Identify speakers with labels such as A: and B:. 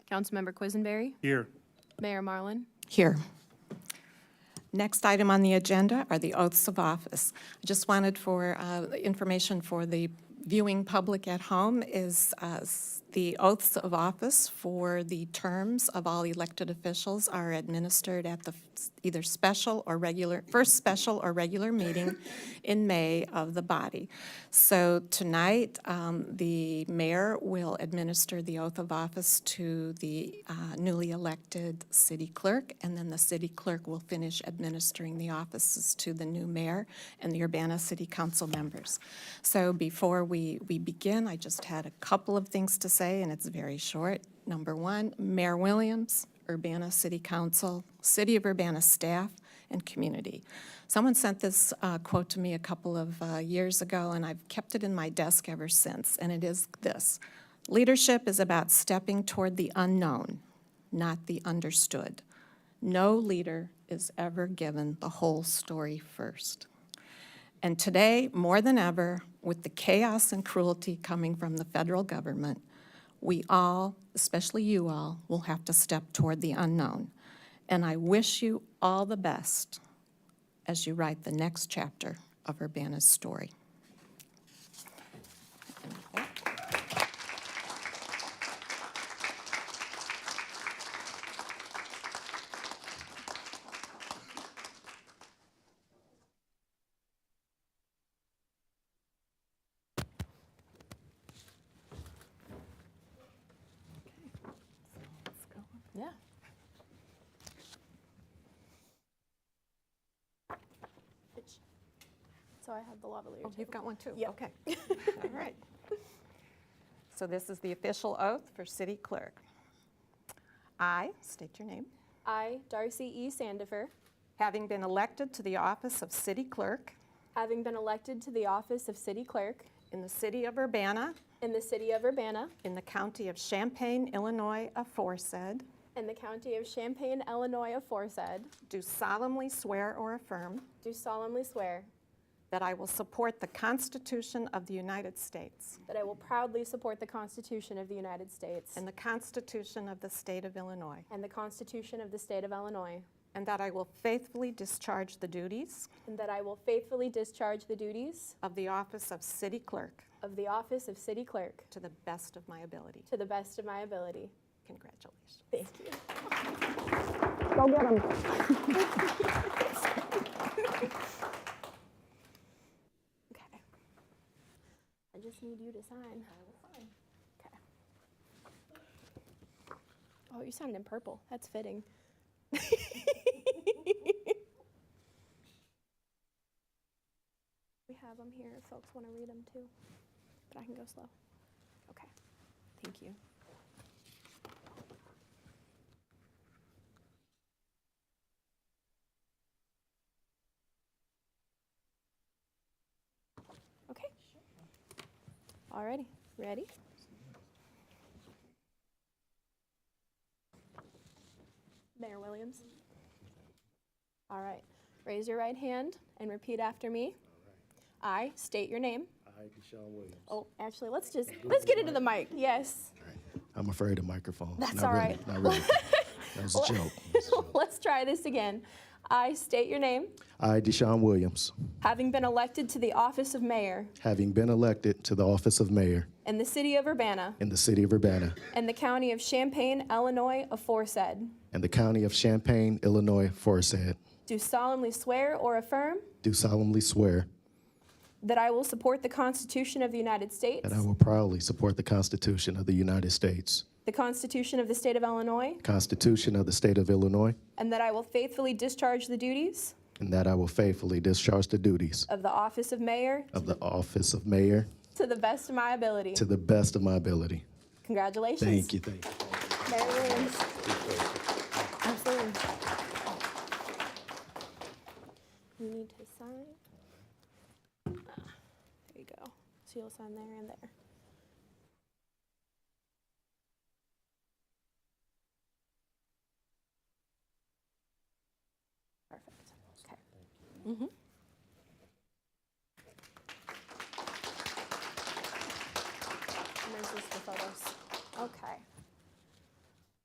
A: Councilmember Quisenberry,
B: Here.
A: Mayor Marlin,
C: Here. Next item on the agenda are the oaths of office. Just wanted for, uh, information for the viewing public at home is uh, s- the oaths of office for the terms of all elected officials are administered at the f- either special or regular, first special or regular meeting in May of the body. So tonight, um, the mayor will administer the oath of office to the uh, newly elected city clerk, and then the city clerk will finish administering the offices to the new mayor and the Urbana City Council members. So before we, we begin, I just had a couple of things to say, and it's very short. Number one, Mayor Williams, Urbana City Council, City of Urbana staff, and community. Someone sent this uh, quote to me a couple of uh, years ago, and I've kept it in my desk ever since, and it is this. Leadership is about stepping toward the unknown, not the understood. No leader is ever given the whole story first. And today, more than ever, with the chaos and cruelty coming from the federal government, we all, especially you all, will have to step toward the unknown. And I wish you all the best as you write the next chapter of Urbana's story. Oh,
A: So I have the lavalier too.
C: You've got one too? Yeah. Okay. All right. So this is the official oath for city clerk. I state your name.
A: I, Darcy E. Sandifer,
C: Having been elected to the office of city clerk
A: having been elected to the office of city clerk
C: in the city of Urbana,
A: in the city of Urbana,
C: in the county of Champaign, Illinois aforesaid,
A: in the county of Champaign, Illinois aforesaid,
C: do solemnly swear or affirm
A: do solemnly swear
C: that I will support the Constitution of the United States
A: that I will proudly support the Constitution of the United States
C: and the Constitution of the state of Illinois,
A: and the Constitution of the state of Illinois,
C: and that I will faithfully discharge the duties
A: and that I will faithfully discharge the duties
C: of the office of city clerk
A: of the office of city clerk
C: to the best of my ability.
A: to the best of my ability.
C: Congratulations.
A: Thank you. Go get them. Okay. I just need you to sign. I will sign. Okay. Oh, you signed in purple. That's fitting. We have them here if folks want to read them too, but I can go slow. Okay. Thank you. Okay. Alrighty, ready? Mayor Williams. All right, raise your right hand and repeat after me. I state your name.
D: I, Deshaun Williams.
A: Oh, actually, let's just, let's get into the mic, yes.
D: I'm afraid of microphones.
A: That's
D: Not
A: all
D: really,
A: right.
D: Not really. That was a joke.
A: Let's try this again. I state your name,
D: I, Deshaun Williams,
A: having been elected to the office of mayor
D: having been elected to the office of mayor
A: in the city of Urbana
D: in the city of Urbana
A: and the county of Champaign, Illinois aforesaid,
D: and the county of Champaign, Illinois, aforesaid,
A: do solemnly swear or affirm
D: do solemnly swear
A: That I will support the Constitution of the United States,
D: that I will proudly support the Constitution of the United States,
A: the Constitution of the State of Illinois,
D: Constitution of the state of Illinois,
A: and that I will faithfully discharge the duties
D: and that I will faithfully discharge the duties
A: of the office of mayor
D: of the office of mayor
A: to the best of my ability.
D: to the best of my ability.
A: Congratulations.
D: Thank you, thank you.
A: Mayor Williams. Absolutely. You need to sign. Ah, There you go. So you'll sign there and there. Perfect. Okay. Mhm.